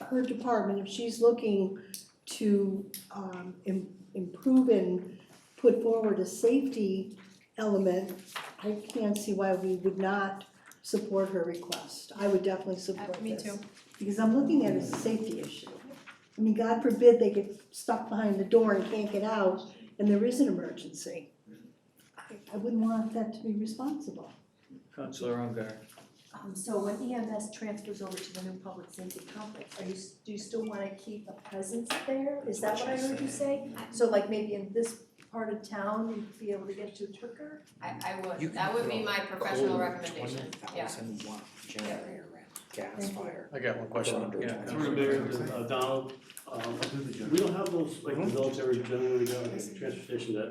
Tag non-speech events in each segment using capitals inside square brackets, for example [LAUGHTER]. her department, if she's looking to um im- improve and put forward a safety element, I can't see why we would not support her request. I would definitely support Uh, this. me too. Because I'm looking at it as a safety issue. I mean, God forbid they get stuck behind the door and can't get out and there is an emergency. I I wouldn't want that to be responsible. Counselor Ungar. Um, so when EMS transfers over to the new public safety complex, are you, s- do you still wanna keep a presence there? Is that what I heard you say? So like maybe in this part of town, you'd be able to get to Twicker? I, I You would, can that would be throw my professional recommendation, Oh, Twenty yeah. thousand watt generator at gas Thank you. fire. I got one For question. under Yeah, $20,000. Through there, to, uh, Donald, um, we don't have those, like, the military generator down at the transfer station that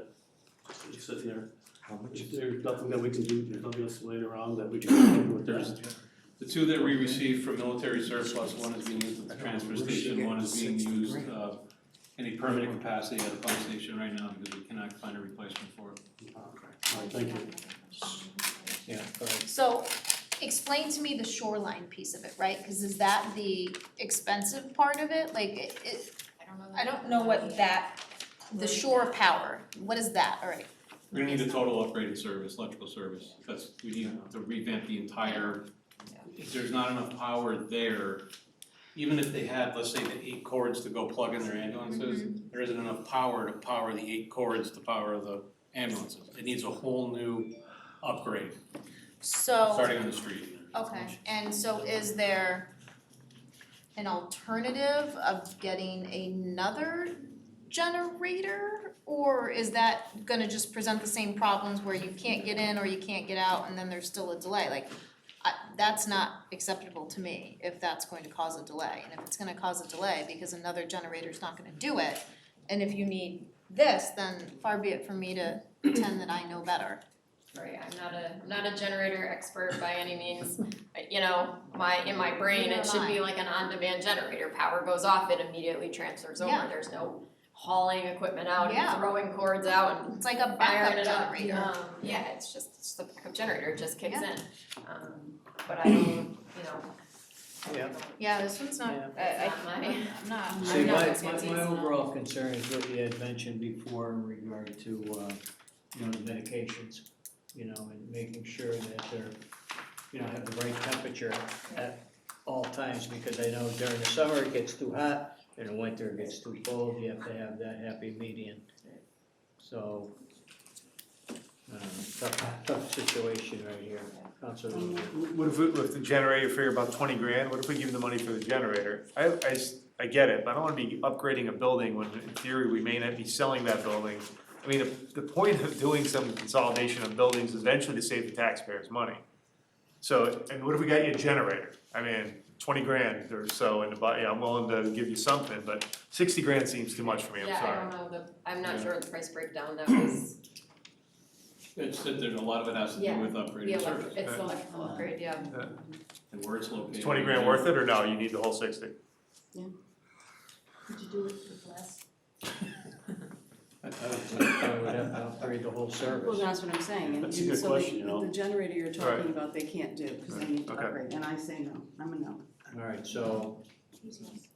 is sitting there. How much If is it? There's nothing that we can do, there's nothing else later on that we can do with There's, that. the two that we received from military surplus, one is being used at the transfer station, one is being used, uh, in a permanent capacity at a pump station right now, because we cannot find a replacement for it. All right, thank you. Yeah, go ahead. So explain to me the shoreline piece of it, right? Cause is that the expensive part of it? Like it, it, I don't know what that, the shore power, what is that, alright? We're gonna need a total upgraded service, electrical service, that's, we need to revamp the entire, if there's not enough power there, even if they had, let's say, the eight cords to go plug in their ambulances, Mm-hmm. there isn't enough power to power the eight cords to power the ambulances. It needs a whole new upgrade, So, Oh. starting on the street. okay, and so is there an alternative of getting another generator? Or is that gonna just present the same problems where you can't get in or you can't get out and then there's still a delay? Like, I, that's not acceptable to me if that's going to cause a delay. And if it's gonna cause a delay because another generator's not gonna do it, and if you need this, then far be it from me to [CLEARS THROAT] pretend that I know better. Right, I'm not a, I'm not a generator expert by any means, But, you know, my, in my brain, Neither it should am I. be like an on-demand generator, power goes off, it immediately transfers Yeah. over, there's no hauling equipment out Yeah. and throwing cords out and It's like a firing backup it up. generator. Um, yeah, it's just, it's just a backup generator, it just kicks in. Yeah. Um, but I don't, you know. I Yeah. don't- Yeah, this one's not, I, I, It's not my, I'm not. See, I'm not my, as my, confused my now. overall concern is what you had mentioned before in regard to, uh, you know, the medications, you know, and making sure that they're, you know, have the right temperature at all times, because I know during the summer it gets too hot, and the winter it gets too cold, you have to have that happy median. So, uh, tough, tough situation right here, Counselor Luther. What if, we- if the generator figure about twenty grand, what if we give them the money for the generator? I, I s- I get it, but I don't wanna be upgrading a building when in theory we may not be selling that building. I mean, the, the point of doing some consolidation of buildings is eventually to save the taxpayers money. So, and what if we got you a generator? I mean, twenty grand or so in the, bu- yeah, I'm willing to give you something, but sixty grand seems too much for me, I'm yeah, I don't sorry. know, the, I'm not Yeah. sure of the price [CLEARS THROAT] breakdown, that was It's that there's a lot of it has to do Yeah, with the upgraded electric, service it's the Uh, electrical upgrade, yeah. and where it's located. Is twenty grand worth it or no, you need the whole sixty? Could you do it with less? I I would think I would have to upgrade the whole Well, service. that's what I'm saying, and and That's a so good question, you know. the, the generator you're Right. talking about, they can't do, cause they need to Okay. upgrade, and I say no, I'm a no. Alright, so,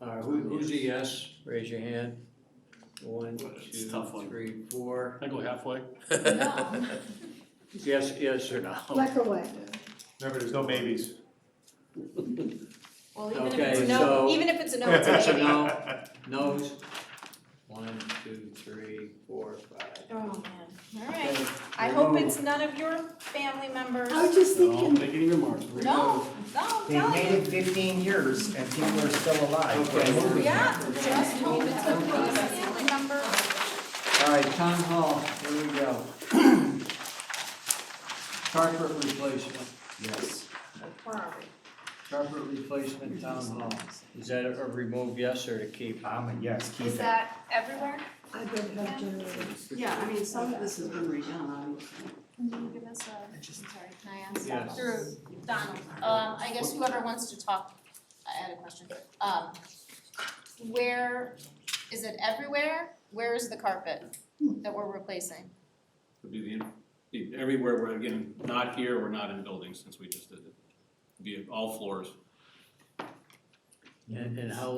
uh, who, who's a yes, raise your hand. One, It's a two, tough one. three, four. I go halfway. Yes, yes or no? Black or white? Remember, there's no maybes. Well, even if it's Okay, no- so- even if it's [LAUGHS] a Yes [LAUGHS] or no? No's? One, two, three, four, five. Oh, man, all right. Okay, I hope remove. it's none of your family members. I was just No, thinking, make any remarks. No, no, I'm They telling made you. it fifteen years and people are still alive. Okay, We're moving. Yeah, just hope it's none of your family members. Alright, town hall, here we go. [CLEARS THROAT] Carpet replacement, Yes. Where are we? carpet replacement town hall. Is that a remove yes or a keep? I'm a yes, keep it. Is that everywhere? I don't have generators. Yeah, I mean, some of this has been redone, obviously. Can you give us a, I'm sorry, can I ask? Yes. Through Donald, um, I guess whoever wants to talk, I had a question. Um, where, is it everywhere? Where is the carpet that we're replacing? Would be the, in- be everywhere, we're again, not here, we're not in buildings, since we just did it. Be all floors. And, and how